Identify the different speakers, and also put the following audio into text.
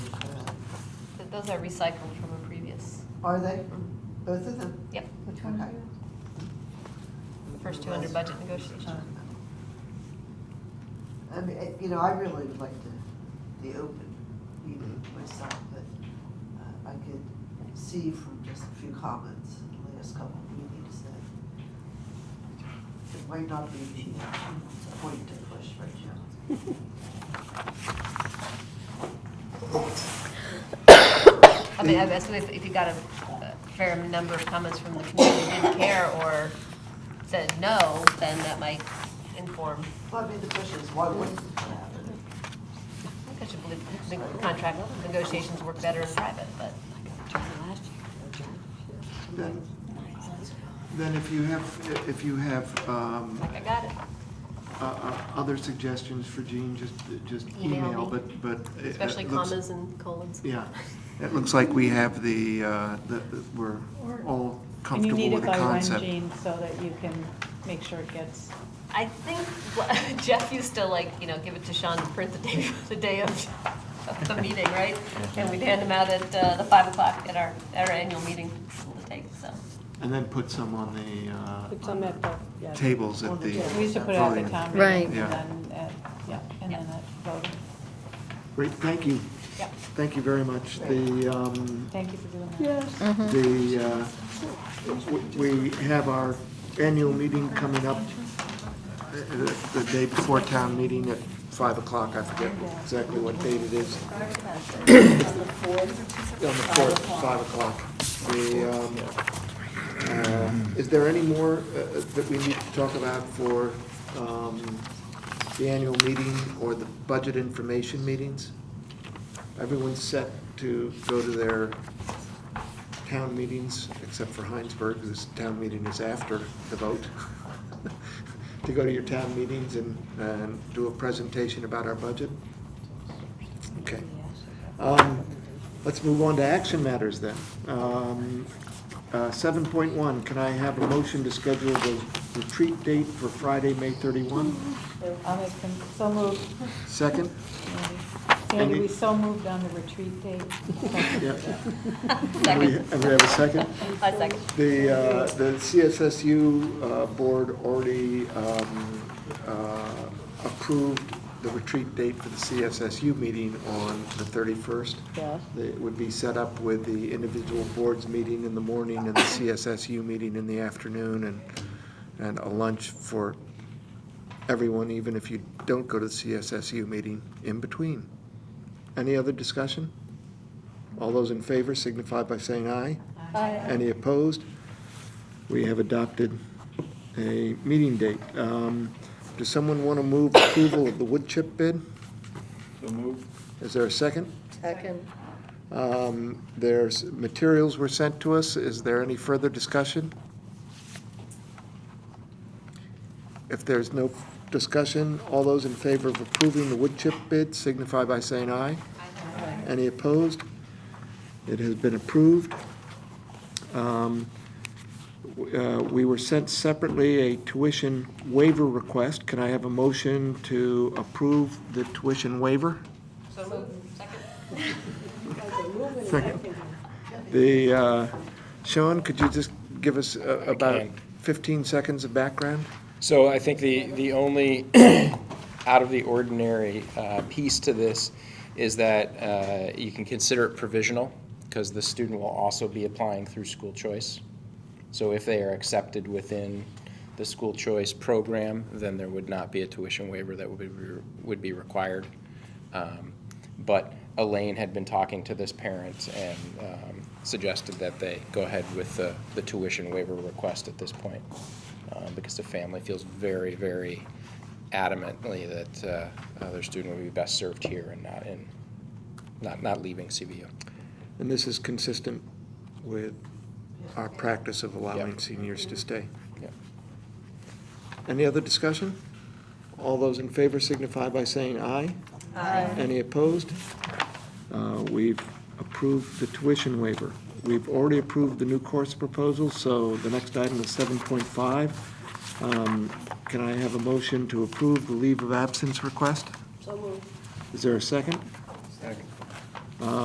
Speaker 1: Those are recycled from a previous,
Speaker 2: Are they? Both of them?
Speaker 1: yep,
Speaker 2: Okay.
Speaker 1: first two under budget negotiations.
Speaker 2: I mean, it- you know, I really would like to be open meeting myself, but uh, I could see from just a few comments in the last couple of meetings that it might not be the point to push right now.
Speaker 1: I mean, I guess if, if you got a a fair number of comments from the community who didn't care or said no, then that might inform.
Speaker 2: Well, I mean, the question is, why wouldn't it happen?
Speaker 1: I think I should believe the contract negotiations work better in private, but.
Speaker 3: Then then if you have, if you have um,
Speaker 1: Like, I got it.
Speaker 3: uh, uh, other suggestions for Jean, just, just
Speaker 1: Email
Speaker 3: email,
Speaker 1: me.
Speaker 3: but, but. it- it
Speaker 1: Especially
Speaker 3: looks-
Speaker 1: commas and colons.
Speaker 3: Yeah, it looks like we have the, uh, the- the- we're
Speaker 4: Or-
Speaker 3: all
Speaker 4: And you
Speaker 3: comfortable
Speaker 4: need
Speaker 3: with
Speaker 4: it
Speaker 3: the
Speaker 4: by when,
Speaker 3: concept.
Speaker 4: Jean, so that you can make sure it gets,
Speaker 1: I think what- Jeff used to like, you know, give it to Sean to print the day, the day of of the meeting, right? And we'd hand them out at uh, the five o'clock at our, at our annual meeting to take, so.
Speaker 3: And then put some on the uh,
Speaker 4: put some at the, yeah.
Speaker 3: tables
Speaker 2: On
Speaker 3: at
Speaker 2: the
Speaker 3: the.
Speaker 2: table.
Speaker 4: We used to put it at the
Speaker 3: podium.
Speaker 4: town
Speaker 5: Right.
Speaker 4: meeting,
Speaker 3: Yeah.
Speaker 4: and then, at- yeah, and then at voting.
Speaker 3: Great, thank you.
Speaker 1: Yep.
Speaker 3: Thank you very much. The, um,
Speaker 4: Thank you for doing that. Yes.
Speaker 3: the, uh, w- we have our annual meeting coming up uh, the day before town meeting at 5 o'clock. I forget exactly what date it is. On the 4th, 5 o'clock. The, um, uh, is there any more uh, that we need to talk about for um, the annual meeting or the budget information meetings? Everyone's set to go to their town meetings, except for Heinsberg, whose town meeting is after the vote, to go to your town meetings and, and do a presentation about our budget? Okay. Um, Let's move on to action matters then. Um, uh, 7.1, can I have a motion to schedule the retreat date for Friday, May 31?
Speaker 4: I'll make them, so moved.
Speaker 3: Second?
Speaker 4: Sandy.
Speaker 3: Andy?
Speaker 4: Sandy, we so moved on the retreat date.
Speaker 3: Yeah.
Speaker 1: Second,
Speaker 3: And we have a second?
Speaker 1: I second.
Speaker 3: The, uh, the CSSU uh, board already um, uh, approved the retreat date for the CSSU meeting on the 31st.
Speaker 4: Yeah.
Speaker 3: It would be set up with the individual boards meeting in the morning and the CSSU meeting in the afternoon and, and a lunch for everyone, even if you don't go to the CSSU meeting in between. Any other discussion? All those in favor signify by saying aye. Any opposed? We have adopted a meeting date. Um, Does someone want to move approval of the wood chip bid?
Speaker 6: So moved.
Speaker 3: Is there a second?
Speaker 5: Second.
Speaker 3: Um, There's, materials were sent to us. Is there any further discussion? If there's no discussion, all those in favor of approving the wood chip bid signify by saying aye. Any opposed? It has been approved. Um, w- uh, We were sent separately a tuition waiver request. Can I have a motion to approve the tuition waiver?
Speaker 1: So moved. Second.
Speaker 3: The, uh, Sean, could you just give us uh, about 15 seconds of background?
Speaker 7: So I think the, the only out of the ordinary uh, piece to this is that uh, you can consider it provisional because the student will also be applying through school choice. So if they are accepted within the school choice program, then there would not be a tuition waiver that would be, would be required. Um, But Elaine had been talking to this parent and um, suggested that they go ahead with the, the tuition waiver request at this point uh, because the family feels very, very adamantly that uh, uh, their student would be best served here and not in, not, not leaving CVU.
Speaker 3: And this is consistent with our practice of allowing
Speaker 7: Yep.
Speaker 3: seniors to stay.
Speaker 7: Yeah.
Speaker 3: Any other discussion? All those in favor signify by saying aye. Aye. Any opposed? Uh, We've approved the tuition waiver. We've already approved the new course proposal, so the next item is 7.5. Um, Can I have a motion to approve the leave of absence request? So moved. Is there a second?
Speaker 6: Second.